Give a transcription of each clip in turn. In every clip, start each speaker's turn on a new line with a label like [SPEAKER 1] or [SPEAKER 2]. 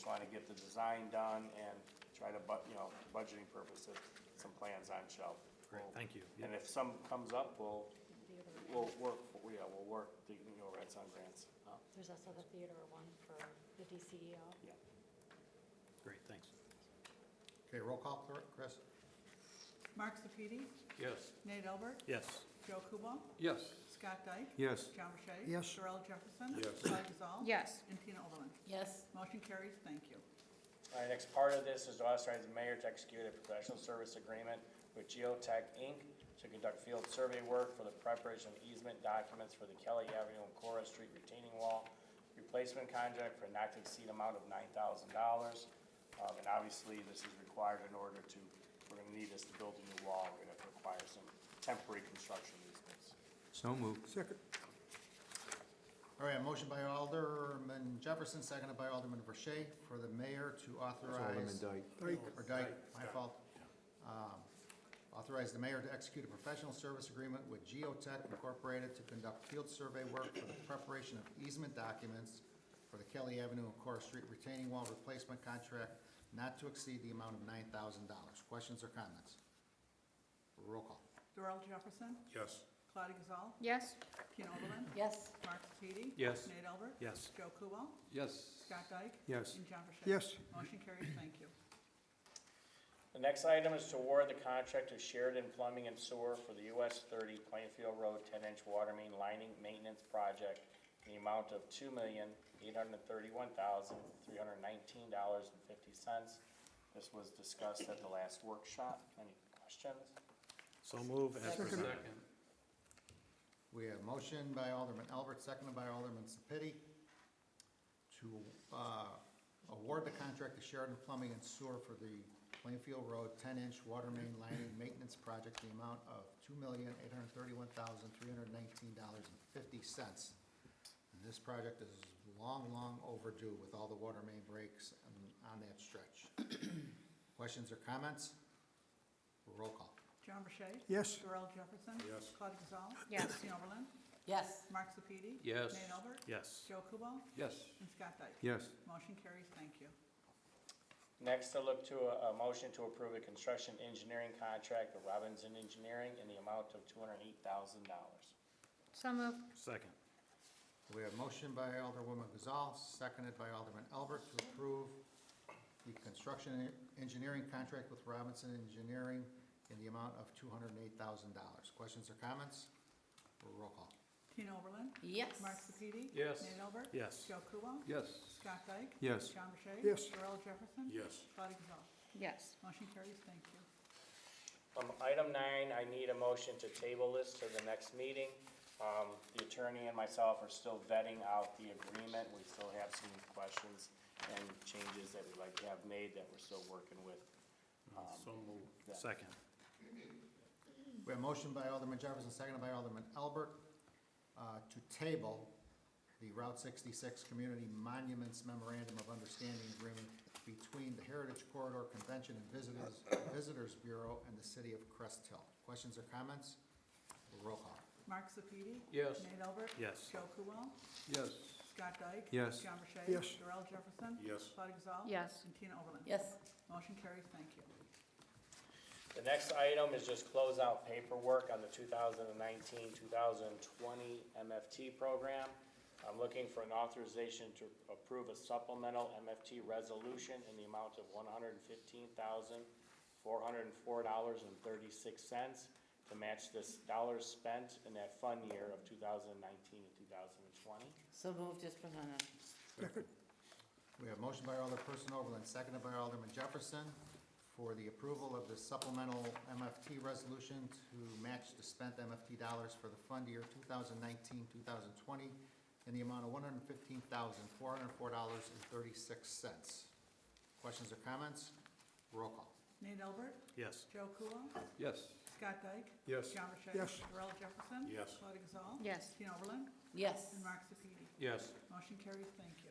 [SPEAKER 1] trying to get the design done and try to, bu- you know, budgeting purposes, some plans on shelf.
[SPEAKER 2] Great, thank you.
[SPEAKER 1] And if some comes up, we'll, we'll work, yeah, we'll work the, you know, Red Sun grants. up.
[SPEAKER 3] There's also the theater one for the E DCEO.
[SPEAKER 1] Yeah.
[SPEAKER 2] Great, thanks.
[SPEAKER 4] Okay, roll call, Cl- Chris?
[SPEAKER 5] Mark Sepiti,
[SPEAKER 2] Yes.
[SPEAKER 5] Nate Albert,
[SPEAKER 2] Yes.
[SPEAKER 5] Joe Kubal,
[SPEAKER 6] Yes.
[SPEAKER 5] Scott Dyke.
[SPEAKER 6] Yes.
[SPEAKER 5] John Burchett.
[SPEAKER 4] Yes.
[SPEAKER 5] Darrell Jefferson.
[SPEAKER 6] Yes.
[SPEAKER 5] Claudia Gazal.
[SPEAKER 7] Yes.
[SPEAKER 5] And Tina Oberlin.
[SPEAKER 3] Yes.
[SPEAKER 5] Motion carries, thank you.
[SPEAKER 1] All right, next part of this is to authorize the mayor to execute a professional service agreement with Geotech Inc. to conduct field survey work for the preparation of easement documents for the Kelly Avenue and Cora Street retaining wall. Replacement contract for not to exceed amount of nine thousand dollars. Um, and obviously, this is required in order to, we're gonna need this to build a new wall, we're gonna have to require some temporary construction easements.
[SPEAKER 6] So moved. Second.
[SPEAKER 4] All right, a motion by Alderman Jefferson, seconded by Alderman Verche for the mayor to authorize.
[SPEAKER 6] Alderman
[SPEAKER 4] Or Dyke, my fault. Um, Authorize the mayor to execute a professional service agreement with Geotech Incorporated to conduct field survey work for the preparation of easement documents for the Kelly Avenue and Cora Street retaining wall replacement contract not to exceed the amount of nine thousand dollars. Questions or comments? Roll call.
[SPEAKER 5] Darrell Jefferson,
[SPEAKER 6] Yes.
[SPEAKER 5] Claudia Gazal,
[SPEAKER 7] Yes.
[SPEAKER 5] Tina Oberlin,
[SPEAKER 3] Yes.
[SPEAKER 5] Mark Sepiti.
[SPEAKER 6] Yes.
[SPEAKER 5] Nate Albert.
[SPEAKER 2] Yes.
[SPEAKER 5] Joe Kubal,
[SPEAKER 6] Yes.
[SPEAKER 5] Scott Dyke.
[SPEAKER 6] Yes.
[SPEAKER 5] And John Burchett.
[SPEAKER 6] Yes.
[SPEAKER 5] Motion carries, thank you.
[SPEAKER 1] The next item is to award the contract to Sheridan Plumbing and Sewer for the US thirty Plainfield Road ten-inch water main lining maintenance project in the amount of two million, eight hundred and thirty-one thousand, three hundred and nineteen dollars and fifty cents. This was discussed at the last workshop. Any questions?
[SPEAKER 2] So move as presented.
[SPEAKER 4] We have motion by Alderman Albert, seconded by Alderman Sapiti to uh, award the contract to Sheridan Plumbing and Sewer for the Plainfield Road ten-inch water main lining maintenance project, the amount of two million, eight hundred thirty-one thousand, three hundred nineteen dollars and fifty cents. And this project is long, long overdue with all the water main breaks on- on that stretch. Questions or comments? Roll call.
[SPEAKER 5] John Burchett.
[SPEAKER 6] Yes.
[SPEAKER 5] Darrell Jefferson.
[SPEAKER 6] Yes.
[SPEAKER 5] Claudia Gazal.
[SPEAKER 7] Yes.
[SPEAKER 5] Tina Oberlin,
[SPEAKER 3] Yes.
[SPEAKER 5] Mark Sepiti.
[SPEAKER 6] Yes.
[SPEAKER 5] Nate Albert.
[SPEAKER 2] Yes.
[SPEAKER 5] Joe Kubal
[SPEAKER 6] Yes.
[SPEAKER 5] and Scott Dyke.
[SPEAKER 6] Yes.
[SPEAKER 5] Motion carries, thank you.
[SPEAKER 1] Next, I look to a, a motion to approve a construction engineering contract with Robinson Engineering in the amount of two hundred and eight thousand dollars.
[SPEAKER 7] So moved.
[SPEAKER 2] Second.
[SPEAKER 4] We have motion by Alderwoman Gazal, seconded by Alderman Albert to approve the construction en- engineering contract with Robinson Engineering in the amount of two hundred and eight thousand dollars. Questions or comments? Roll call.
[SPEAKER 5] Tina Oberlin.
[SPEAKER 3] Yes.
[SPEAKER 5] Mark Sepiti.
[SPEAKER 6] Yes.
[SPEAKER 5] Nate Albert.
[SPEAKER 2] Yes.
[SPEAKER 5] Joe Kubal.
[SPEAKER 6] Yes.
[SPEAKER 5] Scott Dyke.
[SPEAKER 6] Yes.
[SPEAKER 5] John Burchett.
[SPEAKER 6] Yes.
[SPEAKER 5] Darrell Jefferson.
[SPEAKER 6] Yes.
[SPEAKER 5] Claudia Gazal.
[SPEAKER 7] Yes.
[SPEAKER 5] Motion carries, thank you.
[SPEAKER 1] Um, item nine, I need a motion to table this to the next meeting. Um, the attorney and myself are still vetting out the agreement, we still have some questions and changes that we'd like to have made that we're still working with.
[SPEAKER 2] So moved.
[SPEAKER 1] yeah.
[SPEAKER 2] Second.
[SPEAKER 4] We have motion by Alderman Jefferson, seconded by Alderman Albert, uh, to table the Route sixty-six Community Monuments Memorandum of Understanding Agreement between the Heritage Corridor Convention and Visitors, Visitors Bureau and the City of Crest Hill. Questions or comments? Roll call.
[SPEAKER 5] Mark Sepiti.
[SPEAKER 6] Yes.
[SPEAKER 5] Nate Albert.
[SPEAKER 2] Yes.
[SPEAKER 5] Joe Kubal.
[SPEAKER 6] Yes.
[SPEAKER 5] Scott Dyke.
[SPEAKER 6] Yes.
[SPEAKER 5] John Burchett.
[SPEAKER 6] Yes.
[SPEAKER 5] Darrell Jefferson.
[SPEAKER 6] Yes.
[SPEAKER 5] Claudia Gazal.
[SPEAKER 7] Yes.
[SPEAKER 5] And Tina Oberlin.
[SPEAKER 3] Yes.
[SPEAKER 5] Motion carries, thank you.
[SPEAKER 1] The next item is just close out paperwork on the 2019-2020 MFT program. I'm looking for an authorization to approve a supplemental MFT resolution in the amount of one hundred and fifteen thousand, four hundred and four dollars and thirty-six cents to match this dollars spent in that fund year of two thousand nineteen and two thousand and twenty.
[SPEAKER 8] So moved as presented.
[SPEAKER 4] We have motion by Alderperson Overland, seconded by Alderman Jefferson, for the approval of the supplemental MFT resolution to match the spent MFT dollars for the fund year 2019-2020 in the amount of $115,404.36. Questions or comments? Roll call.
[SPEAKER 5] Nate Albert.
[SPEAKER 2] Yes.
[SPEAKER 5] Joe Kubal.
[SPEAKER 6] Yes.
[SPEAKER 5] Scott Dyke.
[SPEAKER 6] Yes.
[SPEAKER 5] John Burchett.
[SPEAKER 6] Yes.
[SPEAKER 5] Darrell Jefferson.
[SPEAKER 6] Yes.
[SPEAKER 5] Claudia Gazal.
[SPEAKER 7] Yes.
[SPEAKER 5] Tina Oberlin.
[SPEAKER 8] Yes.
[SPEAKER 5] And Mark Sepiti.
[SPEAKER 6] Yes.
[SPEAKER 5] Motion carries, thank you.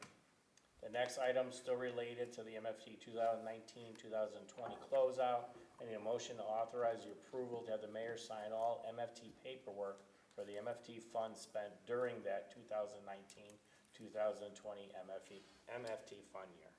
[SPEAKER 1] The next item still related to the MFT 2019-2020 closeout. I need a motion to authorize the approval to have the mayor sign all MFT paperwork for the MFT funds spent E, during that 2019-2020 MFT, MFT fund year.